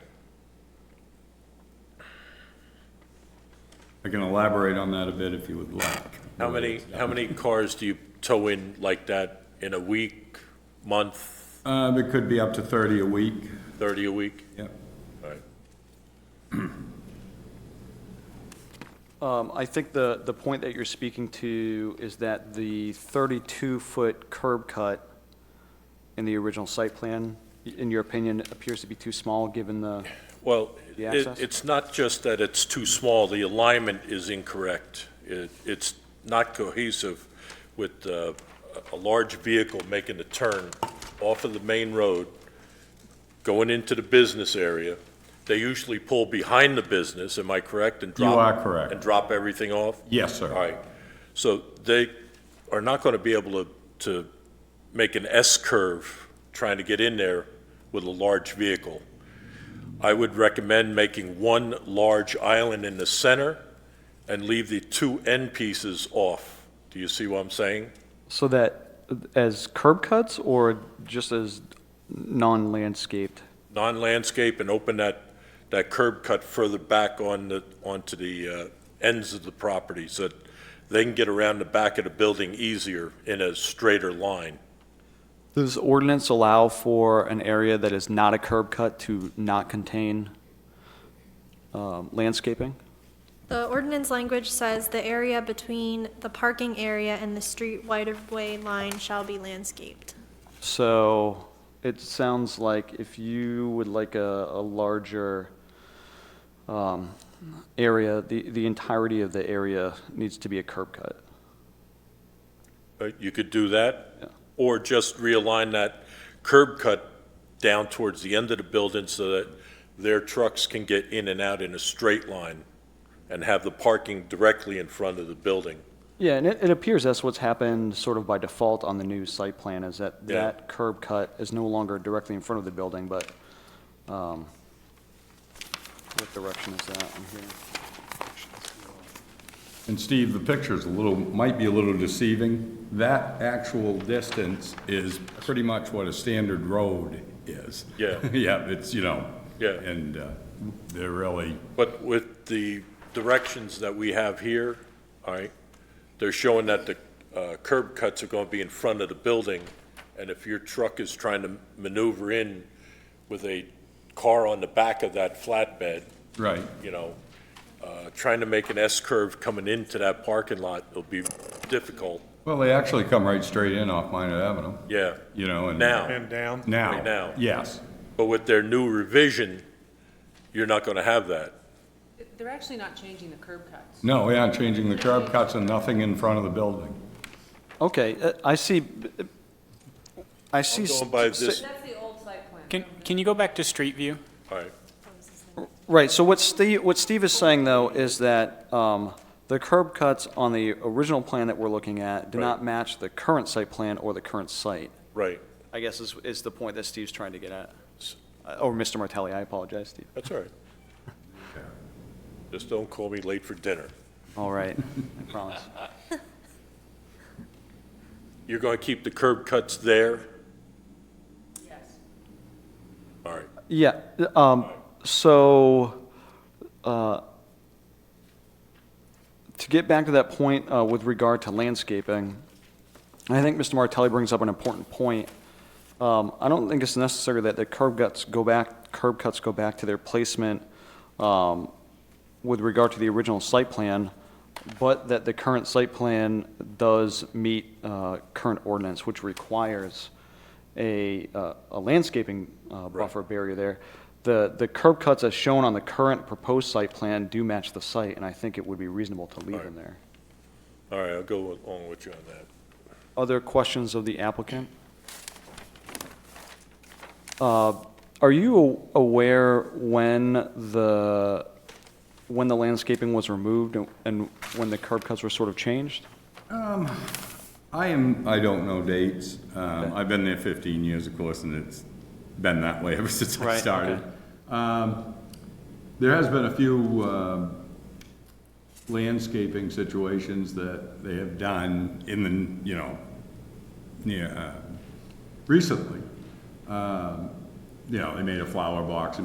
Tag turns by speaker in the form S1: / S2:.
S1: I can elaborate on that a bit if you would like.
S2: How many, how many cars do you tow in like that in a week, month,
S1: Uh, it could be up to thirty a week,
S2: 30 a week?
S1: yep.
S2: All right.
S3: Um, I think the, the point that you're speaking to is that the 32-foot curb cut in the original site plan, i- in your opinion, appears to be too small, given the,
S2: Well,
S3: The
S2: it,
S3: access?
S2: it's not just that it's too small, the alignment is incorrect. It, it's not cohesive with, uh, a a large vehicle making a turn off of the main road, going into the business area. They usually pull behind the business, am I correct? And
S1: You
S2: drop-
S1: are correct.
S2: And drop everything off?
S1: Yes, sir.
S2: All right. So they are not going to be able to, to make an S-curve trying to get in there with a large vehicle. I would recommend making one large island in the center and leave the two end pieces off. Do you see what I'm saying?
S3: so that as curb cuts or just as non-landscaped?
S2: Non-landscape and open that, that curb cut further back on the, onto the uh, ends of the property so that they can get around the back of the building easier in a straighter line.
S3: Does ordinance allow for an area that is not a curb cut to not contain um, landscaping?
S4: The ordinance language says the area between the parking area and the street right-of-way line shall be landscaped.
S3: So it sounds like if you would like a, a larger um, area, the, the entirety of the area needs to be a curb cut.
S2: Uh, You could do that, or just realign that curb cut down towards the end of the building so that their trucks can get in and out in a straight line and have the parking directly in front of the building.
S3: Yeah, and it, it appears that's what's happened sort of by default on the new site plan is that
S2: Yeah.
S3: that curb cut is no longer directly in front of the building, but um, what direction is that on here?
S1: And Steve, the picture's a little, might be a little deceiving. That actual distance is pretty much what a standard road is.
S2: Yeah.
S1: Yeah, it's, you know.
S2: Yeah.
S1: And uh, they're really,
S2: But with the directions that we have here, all right, they're showing that the uh, curb cuts are going to be in front of the building, and if your truck is trying to maneuver in with a car on the back of that flatbed,
S1: right.
S2: you know, uh, trying to make an S-curve coming into that parking lot will be difficult,
S1: Well, they actually come right straight in off Minot Avenue,
S2: yeah,
S1: you know, and.
S2: now.
S5: And down.
S1: Now.
S2: Right now.
S1: Yes.
S2: But with their new revision, you're not going to have that.
S6: They're actually not changing the curb cuts.
S1: No, we aren't changing the curb cuts and nothing in front of the building.
S3: Okay, uh, I see, uh, I see.
S2: I'm
S3: s-
S2: going by
S3: s-
S2: this,
S6: That's the old site plan.
S7: Can, can you go back to street view?
S2: all right,
S3: Right, so what Steve, what Steve is saying, though, is that um, the curb cuts on the original plan that we're looking at do
S2: Right.
S3: not match the current site plan or the current site,
S2: right,
S3: I guess is, is the point that Steve's trying to get at. Uh, Or Mr. Martelli, I apologize, Steve.
S2: that's all right. Just don't call me late for dinner.
S3: All right, I promise.
S2: You're going to keep the curb cuts there?
S6: Yes.
S2: All right,
S3: Yeah, um, so, uh, to get back to that point, uh, with regard to landscaping, I think Mr. Martelli brings up an important point. Um, I don't think it's necessary that the curb cuts go back, curb cuts go back to their placement, um, with regard to the original site plan, but that the current site plan does meet uh, current ordinance, which requires a uh, a landscaping uh, buffer barrier there. The, the curb cuts as shown on the current proposed site plan do match the site, and I think it would be reasonable to leave them there.
S2: all right, I'll go along with you on that.
S3: Other questions of the applicant? Uh, Are you a- aware when the, when the landscaping was removed and- and when the curb cuts were sort of changed?
S1: I am, I don't know dates. Um, I've been there fifteen years, of course, and it's been that way ever since I
S3: Right,
S1: started.
S3: okay.
S1: Um, there has been a few, um, landscaping situations that they have done in the, you know, near, uh, recently. Um, you know, they made a flower box